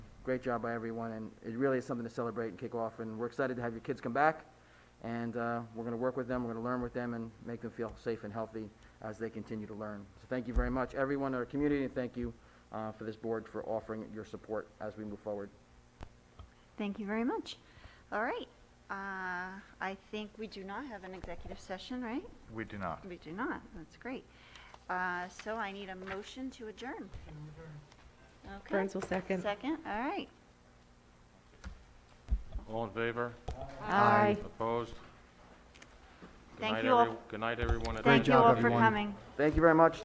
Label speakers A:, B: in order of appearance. A: great job by everyone, and it really is something to celebrate and kick off. And we're excited to have your kids come back, and uh, we're going to work with them, we're going to learn with them, and make them feel safe and healthy as they continue to learn. So thank you very much, everyone in our community, and thank you uh, for this board for offering your support as we move forward.
B: Thank you very much. All right. Uh, I think we do not have an executive session, right?
C: We do not.
B: We do not. That's great. Uh, So I need a motion to adjourn. Okay.
D: Burns will second.
B: Second, all right.
E: All in favor?
D: Aye.
E: Opposed? Good
B: Thank
E: night,
B: you all.
E: every- Good night, everyone. at
B: Thank
E: the-
B: you all for coming.
A: Thank you very much.